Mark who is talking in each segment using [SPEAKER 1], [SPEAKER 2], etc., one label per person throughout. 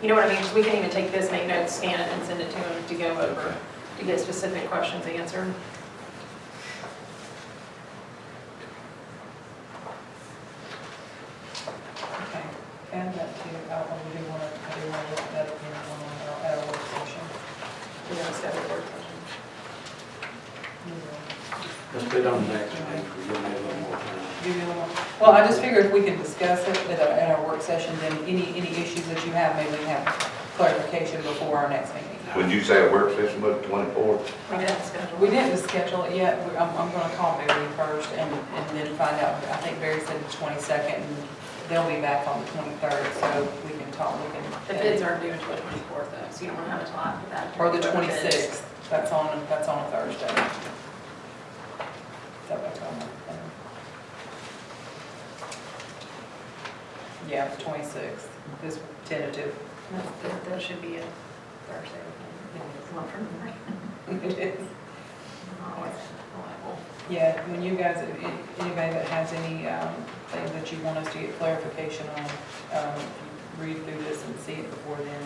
[SPEAKER 1] You know what I mean? 'Cause we can even take this, make notes, scan it, and send it to them to go over,
[SPEAKER 2] Okay.
[SPEAKER 1] to get specific questions answered.
[SPEAKER 3] Okay, add that to, uh, when we do want to, I do want to look at that again on our, at our work session.
[SPEAKER 1] We don't schedule work sessions.
[SPEAKER 3] Yeah.
[SPEAKER 2] Let's put it on the next one, we give me a little more time.
[SPEAKER 3] Give you a little- Well, I just figure if we can discuss it at our, at our work session, then any, any issues that you have, maybe we have clarification before our next meeting.
[SPEAKER 4] Would you say a work session was twenty-fourth?
[SPEAKER 1] We didn't schedule.
[SPEAKER 3] We didn't schedule it yet, We- I'm, I'm gonna call Barry first and, and then find out, I think Barry said the twenty-second, and they'll be back on the twenty-third, so we can talk, we can.
[SPEAKER 1] The bids aren't due until the twenty-fourth, though, so you don't want to have a lot for that.
[SPEAKER 3] Or the twenty-sixth, that's on, that's on a Thursday. So that's on the- Yeah, the twenty-sixth, this tentative.
[SPEAKER 1] That's- That that should be a Thursday. It's not for me. Oh,
[SPEAKER 3] It is.
[SPEAKER 1] I'm always reliable.
[SPEAKER 3] Yeah, when you guys, if anybody that has any um, thing that you want us to get clarification on, um, read through this and see it before then,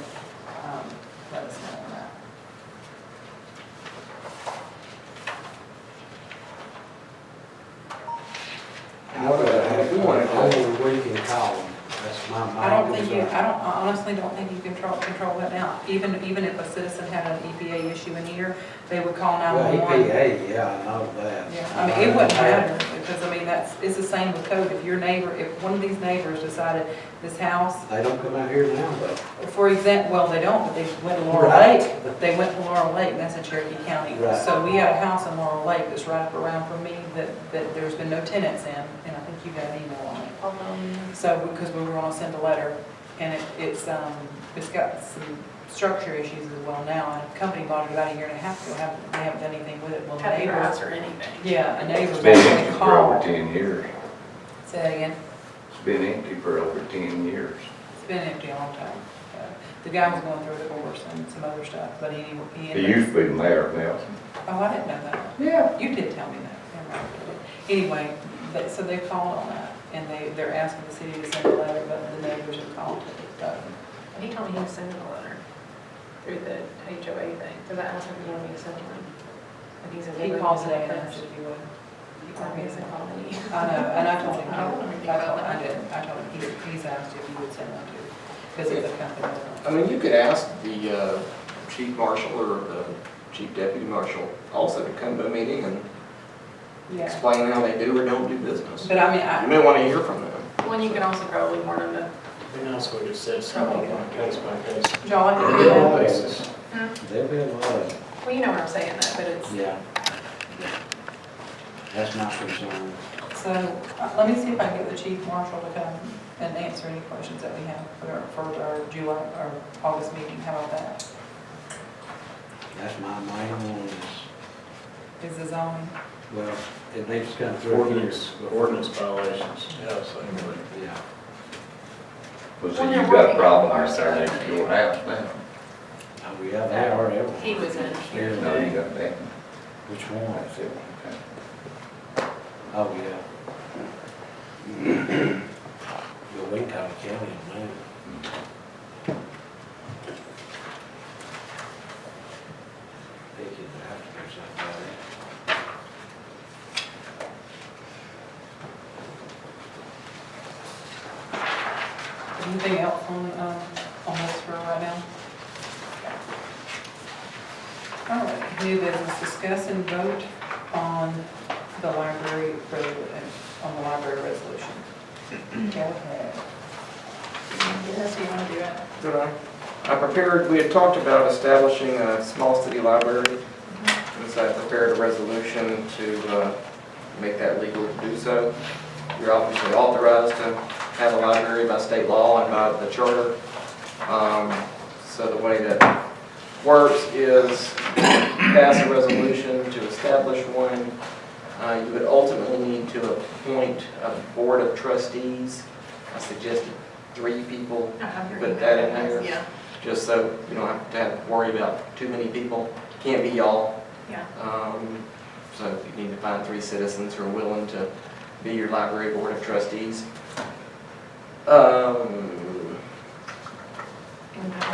[SPEAKER 3] um, let us know on that.
[SPEAKER 2] And what I have, we want it over the weekend column, that's my mind.
[SPEAKER 3] I don't think you, I don't, I honestly don't think you control, control that now. Even, even if a citizen had an EPA issue in here, they would call
[SPEAKER 2] Well, E
[SPEAKER 3] 911.
[SPEAKER 2] EPA, yeah, I know that.
[SPEAKER 3] Yeah, I mean, it wouldn't matter, because I mean, that's, it's the same with code. If your neighbor, if one of these neighbors decided this house,
[SPEAKER 2] They don't come out here now, but,
[SPEAKER 3] for example, well, they don't, but they went to Laurel
[SPEAKER 2] Right.
[SPEAKER 3] Lake. They went to Laurel Lake, and that's in Cherokee County.
[SPEAKER 2] Right.
[SPEAKER 3] So we had a house in Laurel Lake that's right up around from me that, that there's been no tenants in, and I think you got an email on it.
[SPEAKER 1] Although,
[SPEAKER 3] So, because we were gonna send a letter, and it, it's, um, it's got some structure issues as well now, and a company bought it about a year and a half ago, haven't, they haven't done anything with it, well,
[SPEAKER 1] have a
[SPEAKER 3] neighbors.
[SPEAKER 1] grass or anything.
[SPEAKER 3] Yeah, a neighbor
[SPEAKER 4] It's been
[SPEAKER 3] actually
[SPEAKER 4] empty for over
[SPEAKER 3] called,
[SPEAKER 4] ten years.
[SPEAKER 3] say that again,
[SPEAKER 4] It's been empty for over ten years.
[SPEAKER 3] it's been empty a long time. Uh, The guy was going through a divorce and some other stuff, but he, he.
[SPEAKER 4] It used to be Mayor Nelson.
[SPEAKER 3] Oh, I didn't know that.
[SPEAKER 4] Yeah.
[SPEAKER 3] You did tell me that. Never mind. Anyway, but, so they called on that, and they, they're asking the city to send a letter, but the neighbors have called, so.
[SPEAKER 1] He told me he was sending a letter through the HOA thing, because I asked him if he wanted me to send one. And he said.
[SPEAKER 3] He calls today and asks if you would.
[SPEAKER 1] He called me and said, call me.
[SPEAKER 3] I know, and I told him,
[SPEAKER 1] I don't know.
[SPEAKER 3] I told, I did, I told him, he- he's asked if you would send one too, because it's a company.
[SPEAKER 5] I mean, you could ask the uh, chief marshal or the chief deputy marshal also to come to a meeting and
[SPEAKER 3] Yeah,
[SPEAKER 5] explain how they do or don't do business.
[SPEAKER 3] but I mean,
[SPEAKER 5] You
[SPEAKER 3] I,
[SPEAKER 5] may want to hear from them.
[SPEAKER 1] Well, and you can also probably warn them that
[SPEAKER 6] We can also just set something on a case by case
[SPEAKER 3] John,
[SPEAKER 2] there'll
[SPEAKER 3] if
[SPEAKER 2] be
[SPEAKER 3] you
[SPEAKER 2] a
[SPEAKER 3] have-
[SPEAKER 2] lot of us. There'll be a lot of us.
[SPEAKER 1] Well, you know what I'm saying, that, but it's,
[SPEAKER 2] yeah. That's my concern.
[SPEAKER 3] so, uh, let me see if I can get the chief marshal to come and answer any questions that we have for, our- for our July, or August meeting, how about that?
[SPEAKER 2] That's my main one is,
[SPEAKER 3] Is the zoning,
[SPEAKER 2] well, it needs to come through here.
[SPEAKER 6] ordinance, ordinance violations. Yeah, so anyway.
[SPEAKER 2] Yeah.
[SPEAKER 4] Well, so
[SPEAKER 1] Well,
[SPEAKER 4] you've
[SPEAKER 1] they're
[SPEAKER 4] got
[SPEAKER 1] working
[SPEAKER 4] a
[SPEAKER 1] on
[SPEAKER 4] problem
[SPEAKER 1] our
[SPEAKER 4] right
[SPEAKER 1] side.
[SPEAKER 4] there next to your house now.
[SPEAKER 2] Oh, yeah, they are everywhere.
[SPEAKER 1] he was in here
[SPEAKER 2] Yeah.
[SPEAKER 4] No, you
[SPEAKER 1] today.
[SPEAKER 4] got that.
[SPEAKER 2] Which one?
[SPEAKER 4] That's it. Okay.
[SPEAKER 2] Oh, yeah. But we can talk to Kelly and Lou. They could have to do something about it.
[SPEAKER 3] anything else on, um, on this for right now? All right, new business, discuss and vote on the library, re- on the library resolution. Okay.
[SPEAKER 1] Yes, you wanna do it?
[SPEAKER 5] Did I? I prepared, we had talked about establishing a small city library. And so I prepared a resolution to uh, make that legal to do so. You're obviously authorized to have a library by state law and by the charter. Um, So the way that works is pass a resolution to establish one. Uh, You would ultimately need to appoint a board of trustees. I suggested three people
[SPEAKER 1] I have your
[SPEAKER 5] Put
[SPEAKER 1] email
[SPEAKER 5] that in
[SPEAKER 1] address.
[SPEAKER 5] there.
[SPEAKER 1] Yeah,
[SPEAKER 5] just so you don't have to have, worry about too many people. Can't be y'all.
[SPEAKER 1] yeah.
[SPEAKER 5] Um, So if you need to find three citizens who are willing to be your library board of trustees. Um,
[SPEAKER 1] and how